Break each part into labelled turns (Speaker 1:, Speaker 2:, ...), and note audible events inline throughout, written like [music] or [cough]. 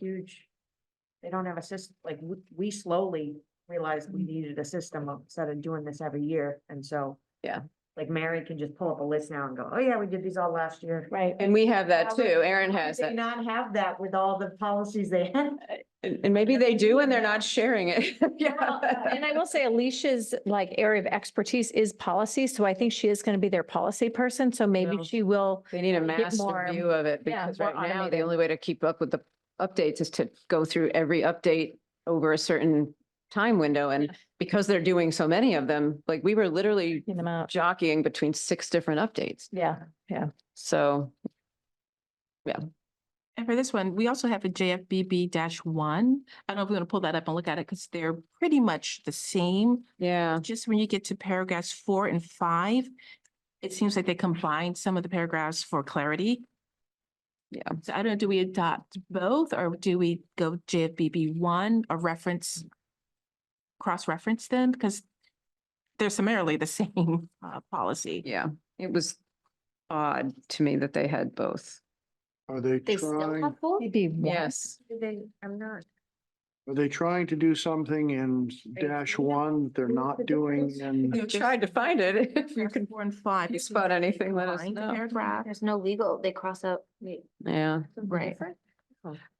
Speaker 1: huge. They don't have a system, like, we, we slowly realized
Speaker 2: Mm-hmm.
Speaker 1: we needed a system of- instead of doing this every year, and so.
Speaker 2: Yeah.
Speaker 1: Like Mary can just pull up a list now and go, oh yeah, we did these all last year.
Speaker 3: Right,
Speaker 2: And we have that
Speaker 1: How
Speaker 2: too.
Speaker 1: would-
Speaker 2: Aaron
Speaker 1: Why
Speaker 2: has
Speaker 1: did They
Speaker 2: that.
Speaker 1: not have that with all the policies they
Speaker 2: [laughs]
Speaker 1: had.
Speaker 2: And, and maybe they do and they're not sharing it. [laughs]
Speaker 3: Well, and I will say Alicia's like area of expertise is policy, so I think she is going to be their policy person, so
Speaker 2: Yeah.
Speaker 3: maybe she will.
Speaker 2: They need a
Speaker 3: Get
Speaker 2: master
Speaker 3: more-
Speaker 2: view of it
Speaker 3: yeah,
Speaker 2: because
Speaker 3: more
Speaker 2: right now, the
Speaker 3: automated.
Speaker 2: only way to keep up with the updates is to go through every update over a certain time window. And because they're doing so many of them, like we were literally
Speaker 3: Get them out,
Speaker 2: jockeying between six different updates.
Speaker 3: yeah.
Speaker 2: So
Speaker 4: And for this one, we also have a JFBB one. I don't know if we're gonna pull that up and look at it because they're pretty much the same.
Speaker 2: yeah,
Speaker 4: Just when you get to paragraphs four and five, it seems like they combined some of the paragraphs for clarity.
Speaker 2: Yeah.
Speaker 4: So I don't know, do we adopt both or do we go JFBB one or reference? Cross-reference them because they're summarily the [laughs] same uh policy.
Speaker 2: yeah, it was odd to me that they had both.
Speaker 5: Are they trying,
Speaker 1: both?
Speaker 3: Maybe one.
Speaker 2: Yes.
Speaker 1: They, I'm not.
Speaker 5: are they trying to do something in dash
Speaker 1: we don't
Speaker 5: one that they're
Speaker 1: do the
Speaker 5: not doing in?
Speaker 2: You tried to find it. [laughs] If you could,
Speaker 4: Four and five.
Speaker 2: you
Speaker 4: it seems
Speaker 2: spot
Speaker 4: like they
Speaker 2: anything, let us
Speaker 4: combined the
Speaker 2: know.
Speaker 4: Paragraph.
Speaker 6: There's no legal, they cross out, wait,
Speaker 2: yeah.
Speaker 4: Right.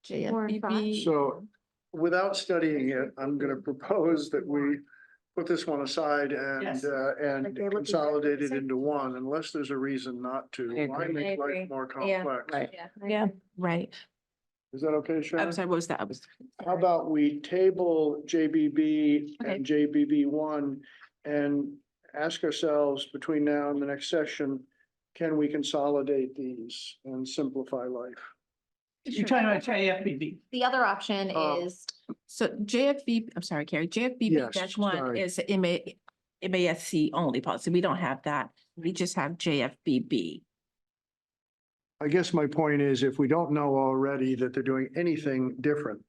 Speaker 4: JFBB.
Speaker 5: So without studying it, I'm going to propose that we put this one aside and,
Speaker 1: Yes.
Speaker 5: uh,
Speaker 1: Like
Speaker 5: and
Speaker 1: they look exactly
Speaker 5: consolidate
Speaker 1: the
Speaker 5: it
Speaker 1: same.
Speaker 5: into one unless there's a reason not to.
Speaker 2: I
Speaker 5: Why
Speaker 2: agree.
Speaker 5: make
Speaker 6: I
Speaker 5: life
Speaker 6: agree.
Speaker 5: more
Speaker 6: Yeah.
Speaker 5: complex?
Speaker 6: yeah.
Speaker 3: Yeah.
Speaker 4: Right.
Speaker 5: Is that okay,
Speaker 4: I'm
Speaker 5: Sharon?
Speaker 4: sorry, what was that?
Speaker 5: How about we table JBB
Speaker 4: Okay.
Speaker 5: and JBB one and ask ourselves between now and the next session, can we consolidate these and simplify life?
Speaker 7: You're talking about JFBB.
Speaker 6: The other option
Speaker 5: Um,
Speaker 6: is
Speaker 4: So JFB, I'm sorry, Carrie, JFBB
Speaker 5: Yes,
Speaker 4: dash one
Speaker 5: sorry.
Speaker 4: is MA, MASC only policy. We don't have that. We just have JFBB.
Speaker 5: I guess my point is if we don't know already that they're doing anything different,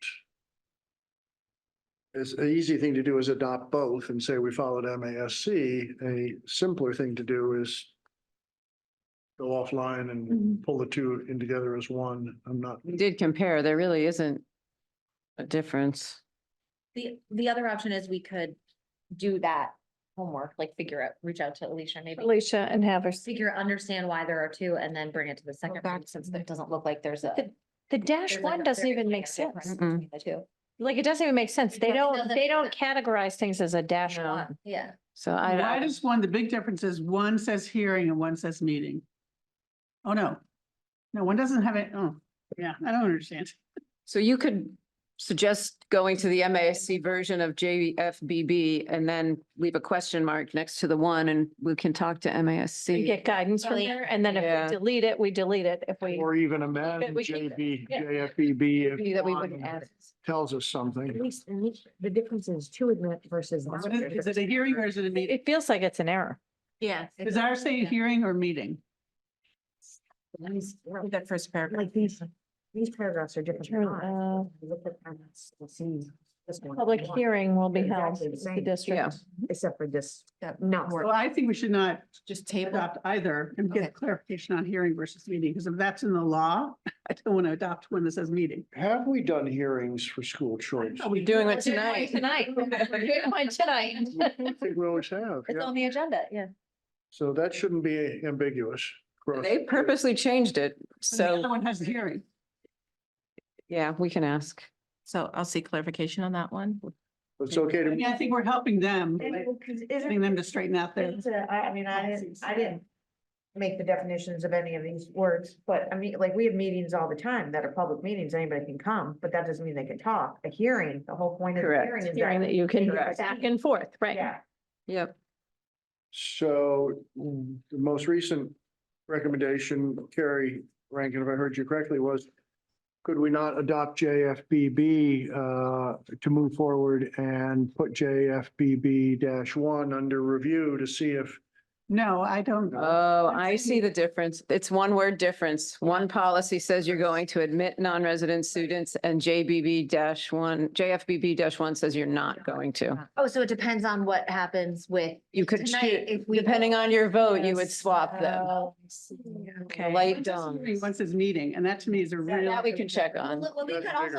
Speaker 5: it's an easy thing to do is adopt both and say we followed MASC. A simpler thing to do is go offline and pull the two in together as one. I'm not,
Speaker 2: We did compare. There really isn't a difference.
Speaker 6: the, the other option is we could do that homework, like figure out, reach out to Alicia, maybe.
Speaker 3: Alicia and have her, s-
Speaker 6: Figure, understand why there are two and then bring it to the second
Speaker 4: back
Speaker 6: one,
Speaker 4: to
Speaker 6: since
Speaker 4: the-
Speaker 6: it doesn't look like there's a.
Speaker 3: the dash
Speaker 6: there's like
Speaker 3: one
Speaker 6: a
Speaker 3: doesn't
Speaker 6: very
Speaker 3: even make
Speaker 6: clear
Speaker 3: sense.
Speaker 6: difference
Speaker 2: Mm-mm.
Speaker 6: between The two.
Speaker 3: Like, it doesn't even make sense. They
Speaker 6: Yeah, it
Speaker 3: don't,
Speaker 6: doesn't-
Speaker 3: they don't categorize things as a dash
Speaker 2: No.
Speaker 3: one.
Speaker 6: Yeah.
Speaker 2: So I,
Speaker 7: Why
Speaker 2: I-
Speaker 7: does one, the big difference is one says hearing and one says meeting. Oh, no. No, one doesn't have it. Oh, yeah, I don't understand.
Speaker 2: so you could suggest going to the MASC version of E JFBB and then leave a question mark next to the one and we can talk to
Speaker 3: We
Speaker 2: MASC.
Speaker 3: get guidance from
Speaker 6: Really?
Speaker 3: there, and then
Speaker 2: Yeah.
Speaker 3: if we delete it, we delete it. If we,
Speaker 5: or even amend
Speaker 3: we keep it.
Speaker 5: JB,
Speaker 3: Yeah.
Speaker 5: JFBB E if
Speaker 2: That we wouldn't
Speaker 5: one
Speaker 2: add.
Speaker 5: tells us
Speaker 1: At
Speaker 5: something.
Speaker 1: least, at least the difference is two admit versus. not.
Speaker 7: What is- Is it a hearing or is it a meeting?
Speaker 3: it feels like it's an error.
Speaker 4: Yeah.
Speaker 7: Does ours say hearing or meeting?
Speaker 1: These-
Speaker 4: That first paragraph.
Speaker 1: Like these, these paragraphs are different.
Speaker 3: Turn,
Speaker 1: than ours.
Speaker 3: uh,
Speaker 1: You Look at them, you'll see this one.
Speaker 3: Public hearing will be
Speaker 1: They're
Speaker 3: held,
Speaker 1: exactly the
Speaker 3: the
Speaker 1: same.
Speaker 2: Yeah.
Speaker 3: district.
Speaker 1: Except for this,
Speaker 4: That
Speaker 1: no.
Speaker 4: works.
Speaker 7: Well, I think we should not
Speaker 4: Just table.
Speaker 7: adopt either and
Speaker 4: Okay.
Speaker 7: get clarification on hearing versus meeting, because if that's in the law, [laughs] I don't want to adopt one that says meeting.
Speaker 5: Have we done hearings for school
Speaker 7: [laughs]
Speaker 5: choice?
Speaker 7: Are
Speaker 2: We're
Speaker 7: we
Speaker 2: doing it
Speaker 3: We're doing
Speaker 6: [laughs]
Speaker 2: tonight.
Speaker 3: one Tonight. We're doing one tonight.
Speaker 5: I think we always have,
Speaker 6: It's
Speaker 5: yeah.
Speaker 6: on the agenda, yeah.
Speaker 5: So that shouldn't be ambiguous. Cross-
Speaker 2: They purposely changed it.
Speaker 7: The other
Speaker 2: So,
Speaker 7: one has the hearing.
Speaker 2: yeah, we can ask.
Speaker 4: So I'll see clarification on that one.
Speaker 5: It's okay
Speaker 7: I
Speaker 5: to
Speaker 7: mean, I think we're helping them,
Speaker 1: And it
Speaker 7: by
Speaker 1: will- 'cause isn't-
Speaker 7: getting them to straighten out their.
Speaker 1: It's a- I, I mean, I didn't, I didn't make the definitions of any of these words, but I mean, like, we have meetings all the time that are public meetings, anybody can come, but that doesn't mean they can talk. A hearing, the whole point of the
Speaker 2: Correct.
Speaker 1: hearing is
Speaker 3: Hearing
Speaker 1: that.
Speaker 3: that you can
Speaker 1: Correct.
Speaker 3: back and forth, right?
Speaker 1: Yeah,
Speaker 2: Yep.
Speaker 5: So mm, the most recent recommendation, Carrie Rankin, if I heard you correctly, was could we not adopt JFBB uh, to move forward and put JFBB dash one under review to see if
Speaker 7: No, I don't.
Speaker 2: Oh, I see the difference. It's one word difference. One policy says you're going to admit non-resident students and JBB dash one, JFBB dash one says you're not going to.
Speaker 6: Oh, so it depends on what happens with.
Speaker 2: You could,
Speaker 6: Tonight,
Speaker 2: choo-
Speaker 6: if we
Speaker 2: depending on your vote, you would
Speaker 3: Yes.
Speaker 2: swap them.
Speaker 1: Uh,
Speaker 3: Oh, I see.
Speaker 2: The
Speaker 3: Okay.
Speaker 2: light
Speaker 7: One says
Speaker 2: done.
Speaker 7: hearing, One says meeting, and that to me is a real.
Speaker 2: That we can check on.
Speaker 6: Well, we
Speaker 5: That's
Speaker 6: could also
Speaker 5: bigger.